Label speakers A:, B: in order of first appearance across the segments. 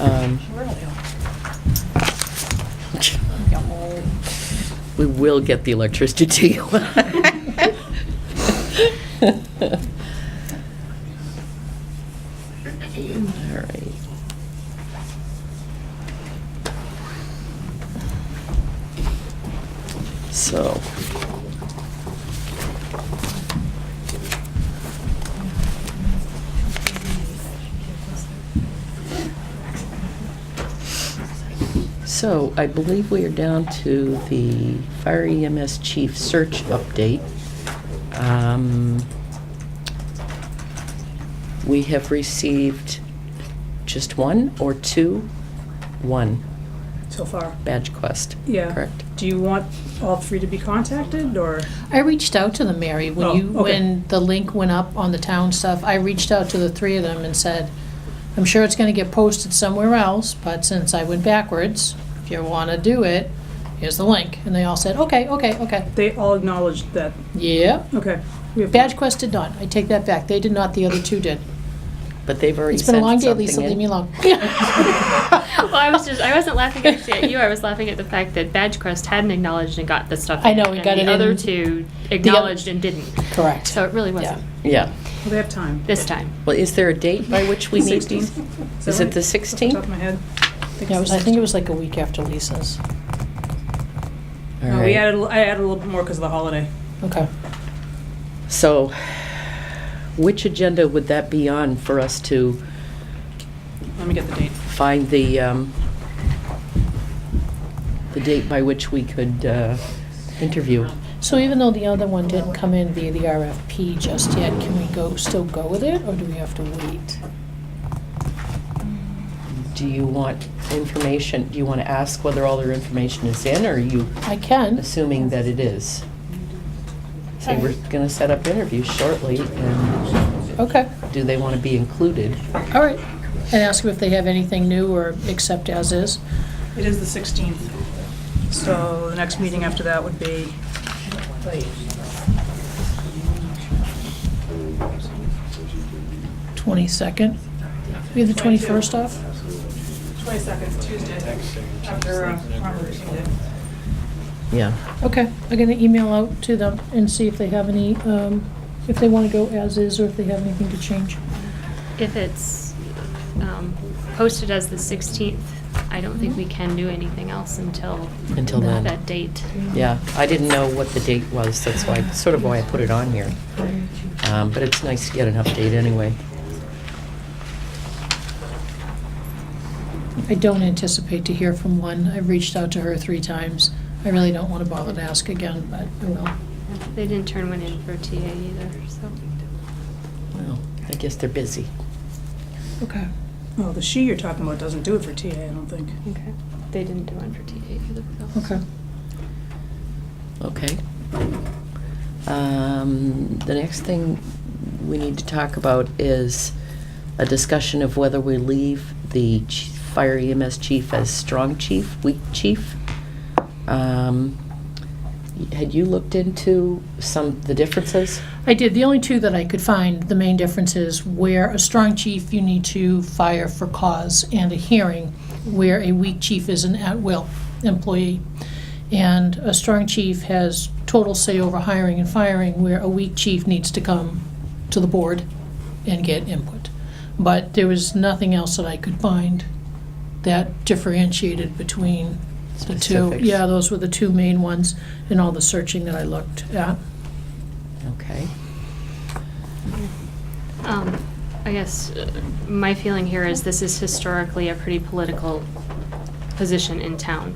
A: Um, We will get the electricity to you. All right. So. So I believe we are down to the fire EMS chief search update. Um, We have received just one or two? One
B: so far.
A: badge quest.
B: Yeah.
A: Correct?
B: Do you want all three to be contacted, or?
C: I reached out to them, Mary,
B: Oh,
C: when you,
B: okay.
C: when the link went up on the town stuff, I reached out to the three of them and said, I'm sure it's gonna get posted somewhere else, but since I went backwards, if you wanna do it, here's the link. And they all said, okay, okay, okay.
B: They all acknowledged that,
C: Yeah.
B: okay. we have-
C: Badge Quest did not. I take that back. They did not, the other two did.
A: But they've already
C: It's been a long
A: sent
C: day,
A: something
C: Lisa, leave me
A: in.
C: alone.
D: Well, I was just, I wasn't laughing actually at you. I was laughing at the fact that Badgecrest hadn't acknowledged and got the stuff.
C: I know,
D: in,
C: we
D: and
C: got
D: the
C: it
D: other
C: in-
D: two acknowledged and didn't.
C: Correct.
D: So it really wasn't
A: Yeah.
B: Well, They have time.
D: this time.
A: Well, is there a date by which we need these?
B: 16th?
A: Is
B: that
A: it the
B: right? Off the top
A: 16th?
B: of my head.
C: Yeah, it
B: it's
C: was- I
B: the
C: think it was like a week after Lisa's.
A: All
B: 16th. No, we
A: right.
B: added, a li- I added a little bit more because of the holiday.
C: Okay.
A: So, which agenda would that be on for us to
B: Let me get the date.
A: find the, um, the date by which we could uh, interview?
C: So even though the other one didn't come in via the RFP just yet, can we go, still go with it, or do we have to wait?
A: Do you want information, do you want to ask whether all their information is in, or are you
C: I can.
A: assuming that it is? So we're going to set up interviews shortly, and
C: Okay,
A: do they want to be included?
C: all right. And ask them if they have anything new or accept as is.
B: It is the 16th. So the next meeting after that would be,
C: Twenty-second. We have the twenty-first off?
B: 22nd, Tuesday, after uh, Martin
A: Yeah.
C: Okay, I'm gonna email out to them and see if they have any, um, if they wanna go as is, or if they have anything to change.
D: If it's um, posted as the 16th, I don't think we can do anything else until
A: Until then.
D: that date.
A: Yeah, I didn't know what the date was, that's why, sort of why I put it on here. Um, But it's nice to get an update anyway.
C: I don't anticipate to hear from one. I've reached out to her three times. I really don't wanna bother to ask again, but I will.
D: They didn't turn one in for TA either, so.
A: Well, I guess they're busy.
C: Okay.
B: Well, Oh, the she you're talking about doesn't do it for TA, I don't think.
D: Okay. They didn't do one for TA either. so.
C: Okay.
A: Okay. Um, The next thing we need to talk about is a discussion of whether we leave the ch- fire EMS chief as strong chief, weak chief. Um, Had you looked into some, the differences?
C: I did. The only two that I could find, the main difference is where a strong chief, you need to fire for cause and a hearing, where a weak chief is an at-will employee. And a strong chief has total say over hiring and firing, where a weak chief needs to come to the board and get input. But there was nothing else that I could find that differentiated between the two.
A: Specifics.
C: Yeah, those were the two main ones in all the searching that I looked at.
A: Okay.
D: Um, I guess uh, my feeling here is this is historically a pretty political position in town.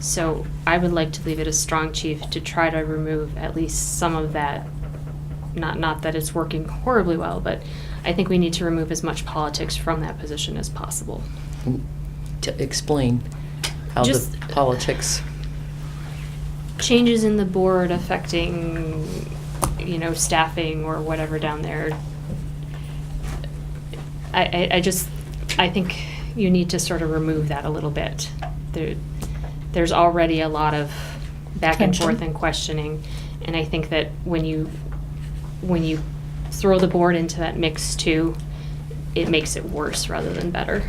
D: So I would like to leave it as strong chief to try to remove at least some of that. Not, not that it's working horribly well, but I think we need to remove as much politics from that position as possible.
A: To explain how the
D: Just-
A: politics,
D: Changes in the board affecting, you know, staffing or whatever down there. I, I, I just, I think you need to sort of remove that a little bit. There, there's already a lot of back and
C: Tension.
D: forth and questioning. And I think that when you, when you throw the board into that mix too, it makes it worse rather than better.